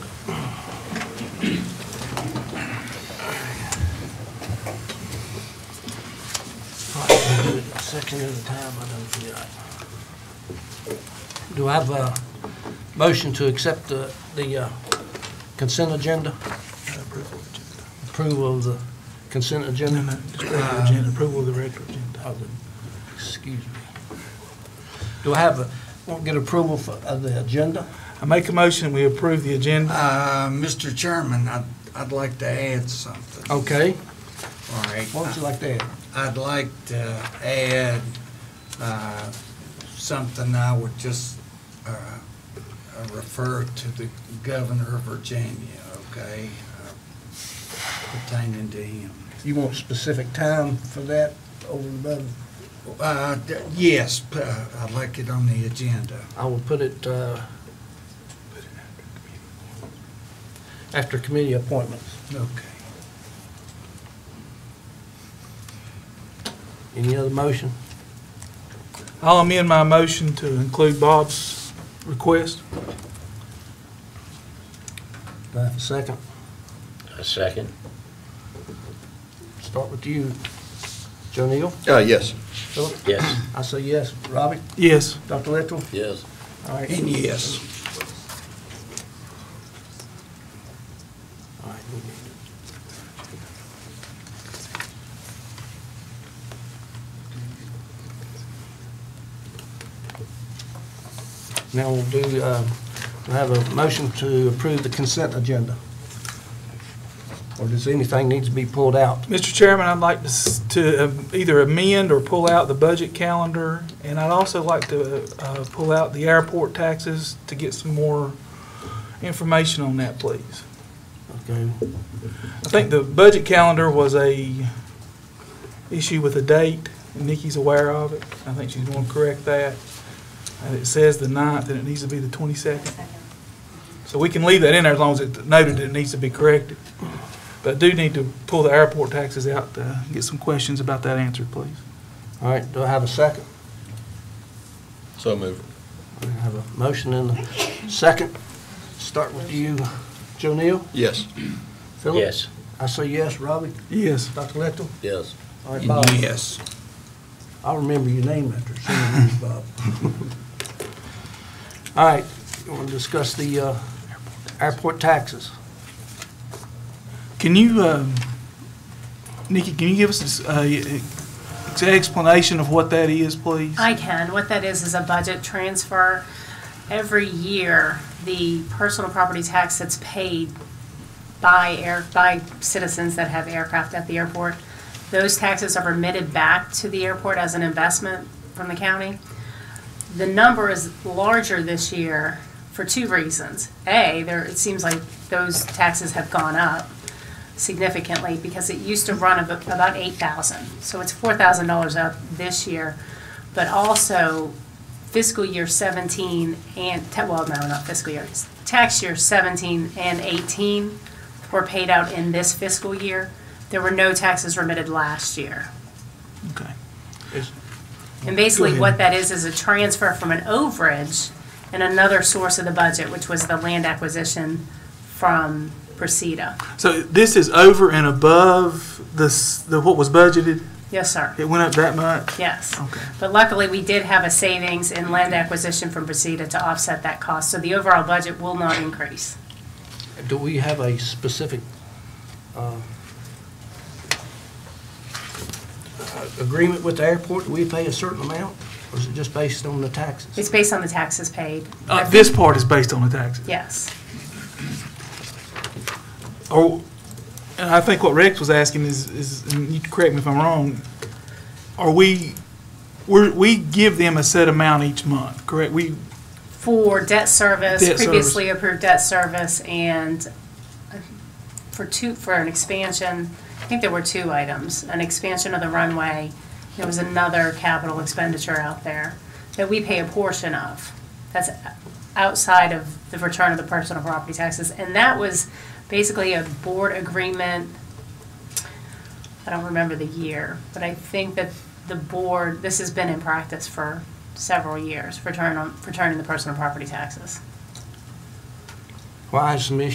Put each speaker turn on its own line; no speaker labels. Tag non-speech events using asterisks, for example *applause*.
section at a time, I don't feel like. Do I have a motion to accept the, the uh, consent agenda? Approval of the consent agenda? Uh,
Approval of the regular agenda.
of the- Excuse me. Do I have a, want to get approval for, of the agenda?
I make a motion, we approve the agenda.
Uh, Mr. Chairman, I'd, I'd like to add something.
Okay,
All right.
what would you like to add?
I'd like to add uh, something I would just uh, uh, refer to the governor of Virginia, okay? uh, Pertaining to him.
You want specific time for that over and above?
Uh, d- Yes, p- uh, I'd like it on the agenda.
I will put it uh, after committee appointments.
Okay.
Any other motion?
I'll amend my motion to include Bob's request.
Do I have a second?
A second.
Start with you, Joe Neal.
Uh, yes.
Philip?
Yes.
I say yes. Robbie?
Yes.
Dr. Littrell?
Yes.
All right.
And yes,
All right, we need it. Now we'll do, uh, we have a motion to approve the consent agenda. Or does anything need to be pulled out?
Mr. Chairman, I'd like to s- to um, either amend or pull out the budget calendar, and I'd also like to uh, pull out the airport taxes to get some more information on that, please.
Okay,
I think the budget calendar was a issue with a date, and Nikki's aware of it. I think she's going to correct that. And it says the 9th, and it needs to be the 22nd. So we can leave that in there as long as it's noted that it needs to be corrected. But I do need to pull the airport taxes out to get some questions about that answered, please.
all right, do I have a second?
So moved.
I have a motion and a second. Start with you, Joe Neal?
Yes.
Philip?
Yes.
I say yes, Robbie?
Yes.
Dr. Littrell?
Yes.
All right, Bob?
and yes.
I'll remember your name after seeing *laughs* you, Bob. All right, you want to discuss the uh, airport taxes?
Can you, um, Nikki, can you give us an explanation of what that is, please?
I can. What that is, is a budget transfer. Every year, the personal property tax that's paid by air, by citizens that have aircraft at the airport, those taxes are remitted back to the airport as an investment from the county. The number is larger this year for two reasons. A, there, it seems like those taxes have gone up significantly because it used to run ab- about eight thousand. So it's four thousand dollars up this year but also fiscal year 17 and, ta- well, no, not fiscal year, it's tax year 17 and 18 were paid out in this fiscal year. There were no taxes remitted last year.
Okay.
And basically,
ahead.
what that is, is a transfer from an overage and another source of the budget, which was the land acquisition from Precita.
So this is over and above the, s- the, what was budgeted?
Yes, sir.
It went up that much?
Yes.
Okay.
But luckily, we did have a savings in land acquisition from Precita to offset that cost, so the overall budget will not increase.
Do we have a specific uh, uh, agreement with the airport? Do we pay a certain amount, or is it just based on the taxes?
It's based on the taxes paid.
Uh, this part is based on the taxes.
Yes.
Or, Oh, and I think what Rex was asking is, is, and you can correct me if I'm wrong, are we, we're, we give them a set amount each month, correct? We,
For debt service,
Debt service.
previously approved debt service, and uh, for two, for an expansion, I think there were two items, an expansion of the runway. There was another capital expenditure out there that we pay a portion of. That's outside of the return of the personal property taxes. And that was basically a board agreement. I don't remember the year, but I think that the board, this has been in practice for several years, return on, returning the personal property taxes.
Why is some issue